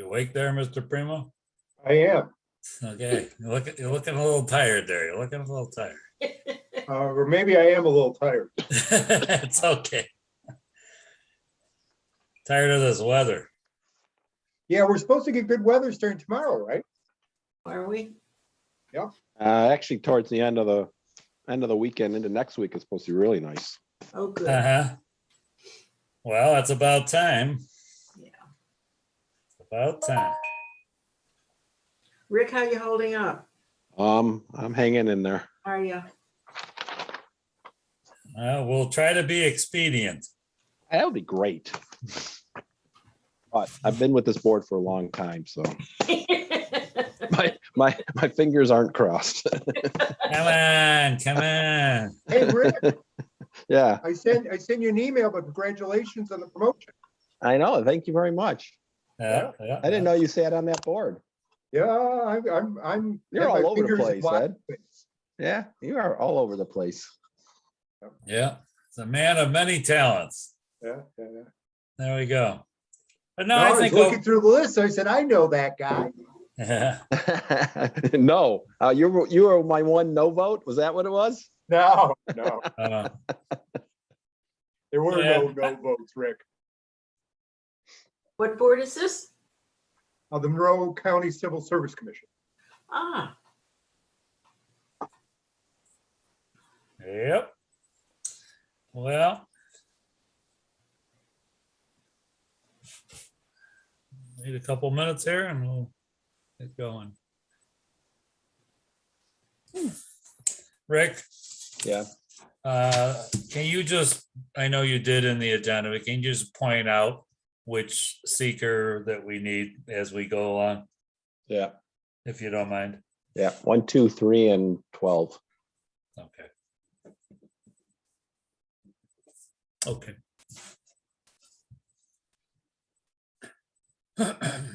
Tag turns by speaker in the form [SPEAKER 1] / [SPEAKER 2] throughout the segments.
[SPEAKER 1] awake there, Mr. Primo?
[SPEAKER 2] I am.
[SPEAKER 1] Okay, you're looking, you're looking a little tired there. You're looking a little tired.
[SPEAKER 2] Uh, Or maybe I am a little tired.
[SPEAKER 1] It's okay. Tired of this weather.
[SPEAKER 2] Yeah, we're supposed to get good weather starting tomorrow, right?
[SPEAKER 3] Are we?
[SPEAKER 4] Uh, actually, towards the end of the, end of the weekend into next week is supposed to be really nice.
[SPEAKER 3] Oh, good.
[SPEAKER 1] Uh-huh. Well, it's about time.
[SPEAKER 3] Yeah.
[SPEAKER 1] About time.
[SPEAKER 3] Rick, how you holding up?
[SPEAKER 4] Um, I'm hanging in there.
[SPEAKER 3] Are you?
[SPEAKER 1] Uh, we'll try to be expedient.
[SPEAKER 4] That would be great. But I've been with this board for a long time, so my, my, my fingers aren't crossed.
[SPEAKER 1] Come on, come on.
[SPEAKER 2] Hey, Rick,
[SPEAKER 4] Yeah,
[SPEAKER 2] I sent, I sent you an email, but congratulations on the promotion.
[SPEAKER 4] I know. Thank you very much.
[SPEAKER 1] Yeah, yeah,
[SPEAKER 4] I didn't know you sat on that board.
[SPEAKER 2] Yeah, I'm, I'm, I'm.
[SPEAKER 4] You're
[SPEAKER 2] my
[SPEAKER 4] all over the
[SPEAKER 2] fingers in
[SPEAKER 4] place,
[SPEAKER 2] lots
[SPEAKER 4] Ed.
[SPEAKER 2] of things.
[SPEAKER 4] Yeah, you are all over the place.
[SPEAKER 1] Yeah, it's a man of many talents.
[SPEAKER 2] Yeah, yeah, yeah.
[SPEAKER 1] There we go. But no,
[SPEAKER 2] No,
[SPEAKER 1] I
[SPEAKER 2] I was
[SPEAKER 1] think.
[SPEAKER 2] looking through the list, I said, I know that guy.
[SPEAKER 1] Yeah.
[SPEAKER 4] No, uh, you were, you were my one no vote. Was that what it was?
[SPEAKER 2] No, no,
[SPEAKER 1] uh,
[SPEAKER 2] there were
[SPEAKER 1] Yeah.
[SPEAKER 2] no, no votes, Rick.
[SPEAKER 3] What board is this?
[SPEAKER 2] Uh, The Monroe County Civil Service Commission.
[SPEAKER 3] Ah,
[SPEAKER 1] Yep. Well. Need a couple minutes here and we'll get going. Rick,
[SPEAKER 4] Yeah.
[SPEAKER 1] uh, can you just, I know you did in the agenda, but can you just point out which seeker that we need as we go along,
[SPEAKER 4] Yeah.
[SPEAKER 1] if you don't mind?
[SPEAKER 4] Yeah, one, two, three, and twelve.
[SPEAKER 1] Okay. Okay.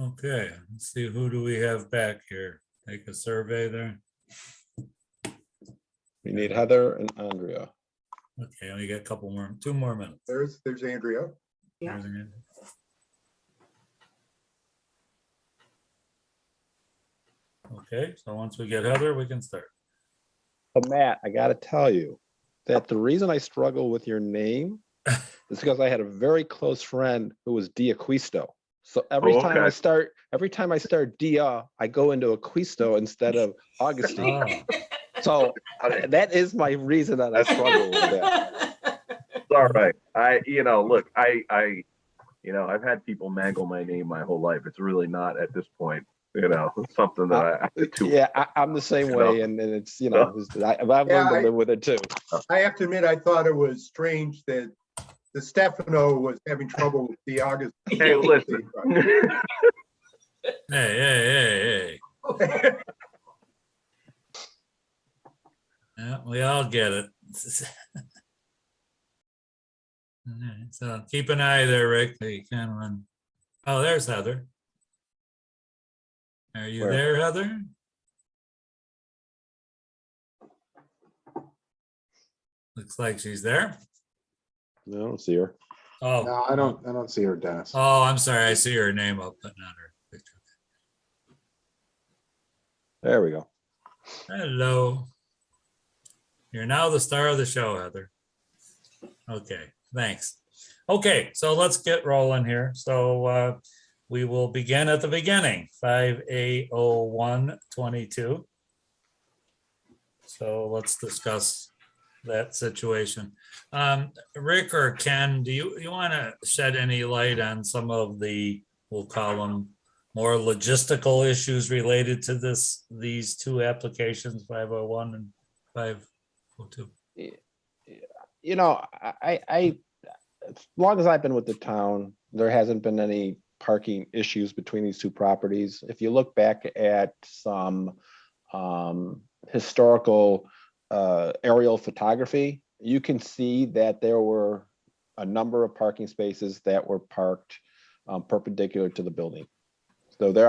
[SPEAKER 1] Okay, let's see, who do we have back here? Take a survey there.
[SPEAKER 4] We need Heather and Andrea.
[SPEAKER 1] Okay, we got a couple more, two more minutes.
[SPEAKER 2] There's, there's Andrea.
[SPEAKER 3] Yeah.
[SPEAKER 1] There's an- Okay, so once we get Heather, we can start.
[SPEAKER 4] But Matt, I gotta tell you that the reason I struggle with your name is because I had a very close friend who was Diaquisto. So every
[SPEAKER 5] Oh,
[SPEAKER 4] time I
[SPEAKER 5] okay.
[SPEAKER 4] start, every time I start Dia, I go into Aquisto instead of Augustine.
[SPEAKER 1] Ah,
[SPEAKER 4] So uh, that is my reason that I struggle with that.
[SPEAKER 5] It's all right. I, you know, look, I, I, you know, I've had people mangle my name my whole life. It's really not at this point, you know, something that I, I too.
[SPEAKER 4] Yeah, I, I'm the same
[SPEAKER 5] You
[SPEAKER 4] way,
[SPEAKER 5] know?
[SPEAKER 4] and, and it's, you know, it's- I, I've learned
[SPEAKER 2] Yeah,
[SPEAKER 4] to
[SPEAKER 2] I-
[SPEAKER 4] live with it too.
[SPEAKER 2] I have to admit, I thought it was strange that the Stefano was having trouble with the August.
[SPEAKER 5] Hey, listen.
[SPEAKER 1] Hey, hey, hey, hey. Yeah, we all get it. All right, So keep an eye there, Rick, that you can run. Oh, there's Heather. Are you
[SPEAKER 4] Where?
[SPEAKER 1] there, Heather? Looks like she's there.
[SPEAKER 4] I don't see her.
[SPEAKER 1] Oh.
[SPEAKER 6] No, I don't, I don't see her, Dennis.
[SPEAKER 1] Oh, I'm sorry. I see her name up, but not her picture.
[SPEAKER 4] There we go.
[SPEAKER 1] Hello. You're now the star of the show, Heather. Okay, thanks. Okay, so let's get rolling here. So uh, we will begin at the beginning, five A O one twenty-two. So let's discuss that situation. Um, Rick or Ken, do you, you want to shed any light on some of the, we'll call them more logistical issues related to this, these two applications, 501 and 502.
[SPEAKER 4] you know, I, I- I, as long as I've been with the town, there hasn't been any parking issues between these two properties. If you look back at some um, historical uh, aerial photography, you can see that there were a number of parking spaces that were parked um, perpendicular to the building. So there